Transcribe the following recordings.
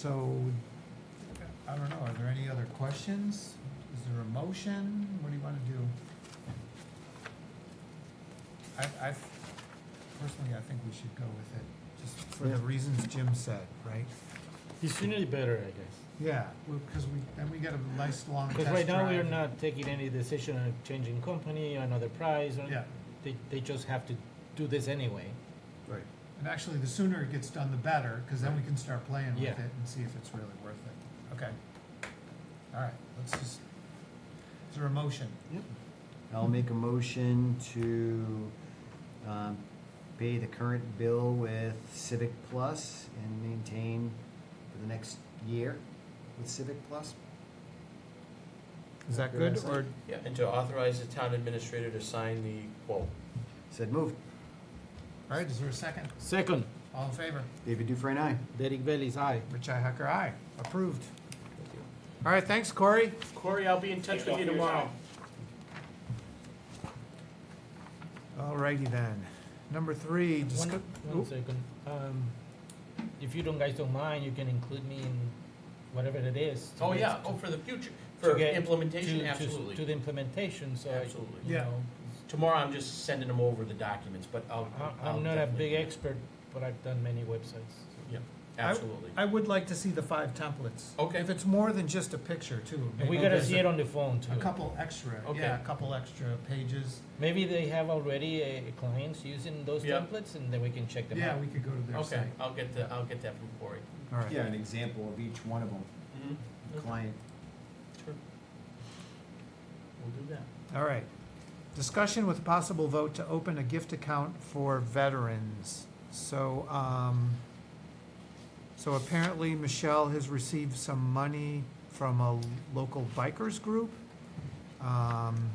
So, I don't know, are there any other questions? Is there a motion? What do you wanna do? I, I, personally, I think we should go with it, just for the Yeah. reasons Jim said, right? The sooner the better, I guess. Yeah, well, cause we, then we get a nice long test Because right now, we are drive. not taking any decision on changing company, another price, or, Yeah, they, they just have to do this anyway. right. And actually, the sooner it gets done, the better, cause then we can start playing with Yeah. it and see if it's really worth it. Okay. All right, let's just, is there a motion? I'll make a motion to um, pay the current bill with Civic Plus and maintain for the next year with Civic Plus. Is that Good good, answer. or Yeah, and to authorize the town administrator to sign the quote. Said move. All right, is there a second? Second, All in favor? David Dufresne, aye. Derek Bailey's aye. Richi Hacker, aye. Approved. All right, thanks, Corey. Corey, I'll be in touch with you tomorrow. All righty then. Number three, One, discuss, one second. Um, if you don't, guys don't mind, you can include me in whatever it is. to Oh, get- yeah, to- oh, for the future, to for get- to- implementation, to- To absolutely. the implementation, so, I- Absolutely. you Yeah. know, Tomorrow, I'm just sending them over the documents, but I'll. I- I'll I'm not a definitely- big expert, but I've done many websites. Yep, absolutely. I would like to see the five templates. Okay. If it's more than just a picture too. And we maybe gotta there's see a- it on the phone too. A couple extra, Okay. yeah, a couple extra pages. Maybe they have already uh, clients using those Yeah. templates, and then we can check them Yeah, out. we could go to their Okay, site. I'll get the, I'll get that from Corey. All right. an example of each one of them, Mhm. client. Sure. We'll do that. All right. Discussion with possible vote to open a gift account for veterans. So, um, so apparently Michelle has received some money from a local bikers group. Um,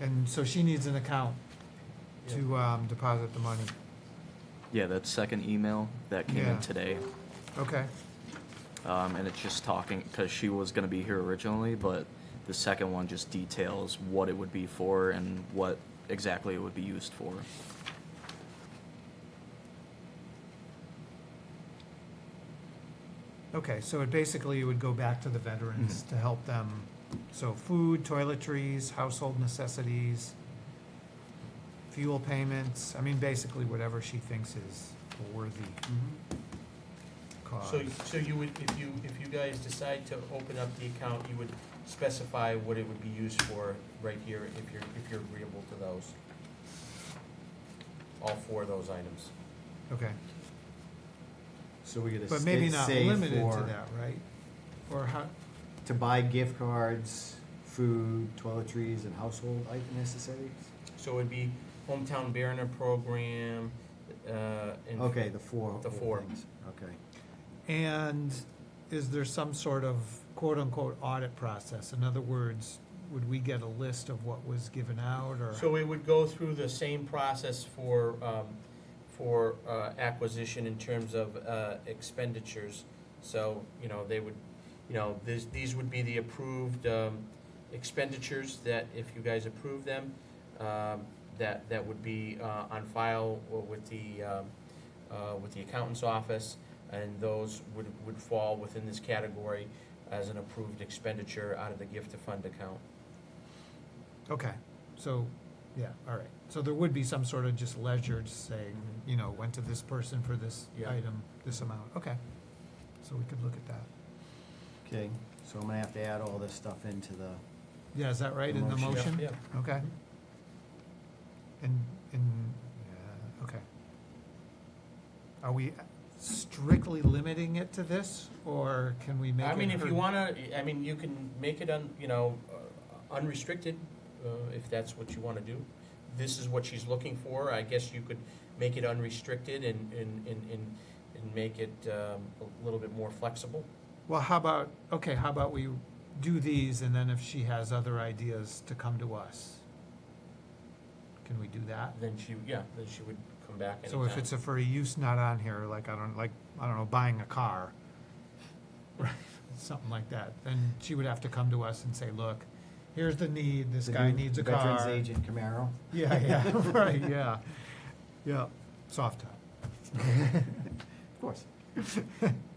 and so she needs an account to, um, deposit the money. Yeah, that second email that came Yeah. in today, Okay, um, and it's just talking because she was going to be here originally, but the second one just details what it would be for and what exactly it would be used for. okay, so it basically would go back to the veterans to help them. So food, toiletries, household necessities, fuel payments, I mean, basically whatever she thinks is a worthy cause. So, so you would, if you, if you guys decide to open up the account, you would specify what it would be used for right here, if you're, if you're agreeable to those? All four of those items. Okay, So we're gonna but maybe sta- not say limited to for, that, right? Or how, to buy gift cards, food, toiletries, and household item necessities? So it'd be hometown Mariner program, uh, and. Okay, the four. The whole four. things. Okay. And is there some sort of quote-unquote audit process? In other words, would we get a list of what was given out or? So it would go through the same process for, um, for, uh, acquisition in terms of, uh, expenditures. So, you know, they would, you know, this, these would be the approved, um, expenditures that if you guys approve them, um, that, that would be, uh, on file or with the, um, uh, with the accountant's office. And those would, would fall within this category as an approved expenditure out of the gift to fund account. Okay, so, yeah, all right. So there would be some sort of just ledger just saying, you know, went to this person for this Yeah. item, this amount, okay. So we could look at that. Okay, so I'm gonna have to add all this stuff into the, Yeah, is that right in the Motion. motion? Yeah, Mm-hmm. Okay. And, and, yeah, okay. Are we strictly limiting it to this, or can we make it? I mean, if her- you wanna, I mean, you can make it un, you know, uh, unrestricted, uh, if that's what you wanna do. This is what she's looking for, I guess you could make it unrestricted and, and, and, and, and make it, um, a little bit more flexible. Well, how about, okay, how about we do these, and then if she has other ideas to come to us? Can we do that? Then she, yeah, then she would come back anytime. So if it's a for a use not on here, like, I don't, like, I don't know, buying a car, right, something like that, then she would have to come to us and say, look, here's the need, this the guy new needs a car. Veterans Agent Camaro. Yeah, yeah, right, yeah, yeah, soft top. Of course.